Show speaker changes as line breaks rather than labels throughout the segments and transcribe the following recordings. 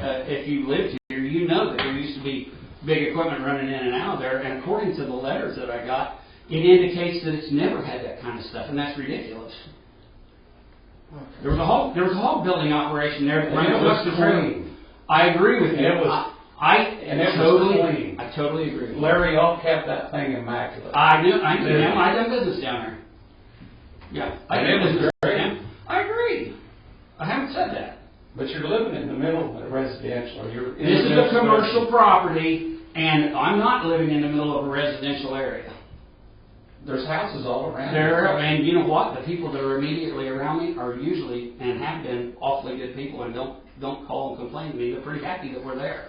Uh, if you lived here, you know that there used to be big equipment running in and out of there, and according to the letters that I got, it indicates that it's never had that kind of stuff, and that's ridiculous. There was a hog, there was a hog building operation there that
And
ran
it was
across the road.
clean.
I agree with you.
And it was-
I- I
and it was
totally,
clean.
I totally agree. with you.
Larry all kept that thing immaculate.
I knew, I knew
Yeah.
him. I done business down there. Yeah. I
And
done
it was
business
great.
with him. I agree. I haven't said that.
But you're living in the middle of a residential, you're. in
This is
the
a
middle of-
commercial property, and I'm not living in the middle of a residential area.
There's houses all around.
There, and you know what? The people that are immediately around me are usually, and have been, awfully good people, and don't, don't call and complain to me. They're pretty happy that we're there.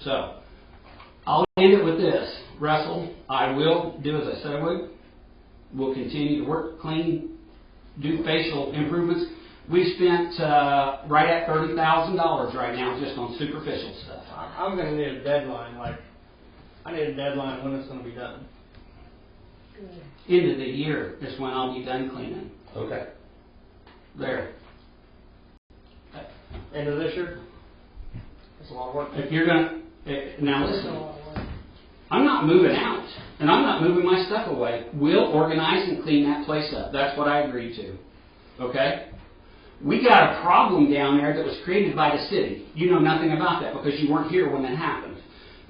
So, I'll end it with this. Russell, I will do as I said I would. We'll continue to work clean, do facial improvements. We spent, uh, right at thirty thousand dollars right now just on superficial stuff.
I- I'm gonna need a deadline, like, I need a deadline when it's gonna be done.
End of the year is when I'll be done cleaning.
Okay.
There.
End of this year? That's a lot of work.
If you're gonna, eh, now listen, I'm not moving out, and I'm not moving my stuff away. We'll organize and clean that place up. That's what I agreed to. Okay? We got a problem down there that was created by the city. You know nothing about that because you weren't here when that happened.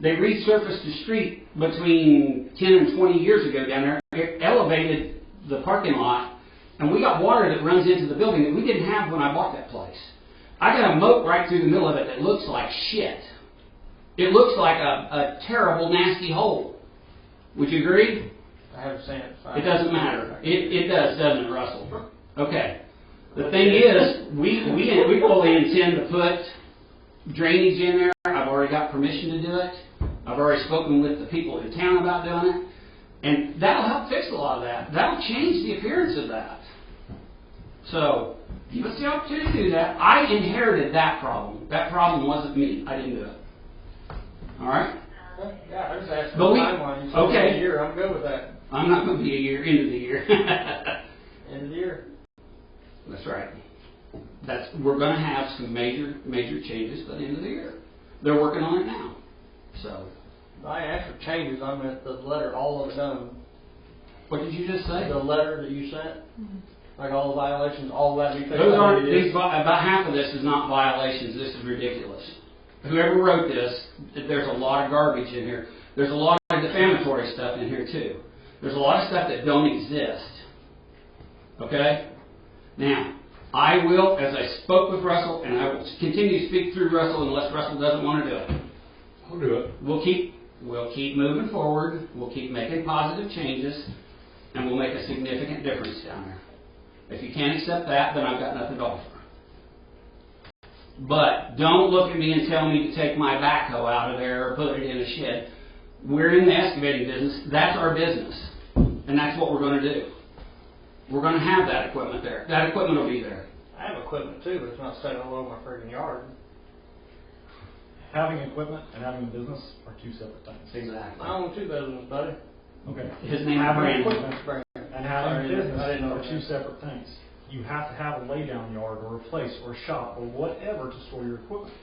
They resurfaced the street between ten and twenty years ago down there, It elevated the parking lot, and we got water that runs into the building that we didn't have when I bought that place. I got a moat right through the middle of it that looks like shit. It looks like a, a terrible, nasty hole. Would you agree?
I haven't seen it. so I-
It doesn't matter. It, it does, doesn't it, Russell? Okay. The thing is, we, we, we fully intend to put drainage in there. I've already got permission to do it. I've already spoken with the people in town about doing it. And that'll help fix a lot of that. That'll change the appearance of that. So, give us the opportunity to do that. I inherited that problem. That problem wasn't me. I didn't do it. All right?
Yeah, I was asking
But
the
we-
timeline. You said
okay.
end of year, I'm good with that.
I'm not going to be a year into the year.
End of the year.
That's right. That's we're going to have some major major changes by the end of the year. They're working on it now. So
I asked for changes, I meant the letter, all of it done.
what did you just say?
The letter that you sent, like all the violations, all that. we fixed
Mm-hmm. Those aren't
it.
these, vi- uh, about half of this is not violations. This is ridiculous. Whoever wrote this, there's a lot of garbage in here. There's a lot of defamatory stuff in here too. There's a lot of stuff that don't exist. Okay? Now, I will, as I spoke with Russell, and I will continue to speak through Russell unless Russell doesn't want to do it.
I'll do it.
we'll keep, we'll keep moving forward, we'll keep making positive changes, and we'll make a significant difference down there. If you can't accept that, then I've got nothing to offer. But don't look at me and tell me to take my backhoe out of there or put it in a shed. We're in the excavating business, that's our business, and that's what we're gonna do. We're gonna have that equipment there, that equipment will be there.
I have equipment too, but it's not set all over my friggin' yard.
Having equipment and having a business are two separate things.
Exactly.
I own two businesses, buddy.
Okay.
His name is
Having
Brandon.
equipment
Bring it.
And having a
Sorry,
business
I didn't know
are two
that.
separate things. You have to have a laydown yard or a place or shop or whatever to store your equipment.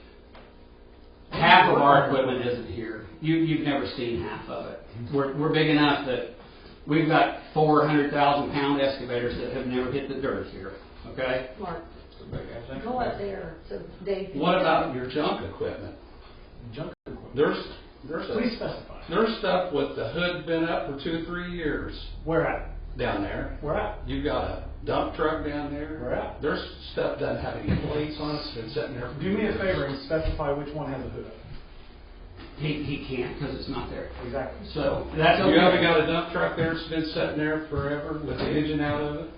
Half of our equipment isn't here. You, you've never seen half of it. We're, we're big enough that we've got four hundred thousand pound excavators that have never hit the dirt here, okay?
Mark,
It's a big ass thing.
go up there so Dave. can-
What about your junk equipment?
Junk equipment.
There's, there's, a-
Please specify.
there's stuff with the hood been up for two, three years
Where at?
down there.
Where at?
You've got a dump truck down there.
Where at?
There's stuff doesn't have any plates on it, it's been sitting there. for
Do me a
years.
favor and specify which one has a hood up.
He, he can't because it's not there.
Exactly.
So that's okay.
You haven't got a dump truck there, it's been sitting there forever with the engine out of it?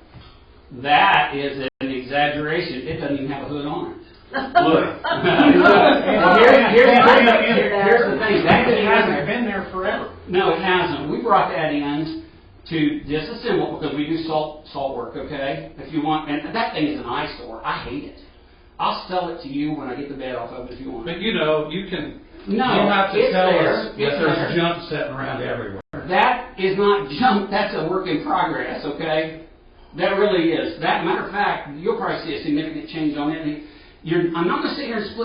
That is an exaggeration. It doesn't even have a hood on it.
Look,
Well, here- here's, here's the- here- here's the thing, that
It
didn't happen.
hasn't been there forever.
No, it hasn't. We brought that in to disassemble because we do salt, salt work, okay? If you want, and that thing is an eyesore. I hate it. I'll sell it to you when I get the bed off of it if you want.
but you know, you can, you
No,
have to
it's
tell
there.
us that
It's there.
there's junk sitting around everywhere.
That is not junk, that's a work in progress, okay? That really is. That matter of fact, you'll probably see a significant change on it. and You're, I'm not gonna sit here and split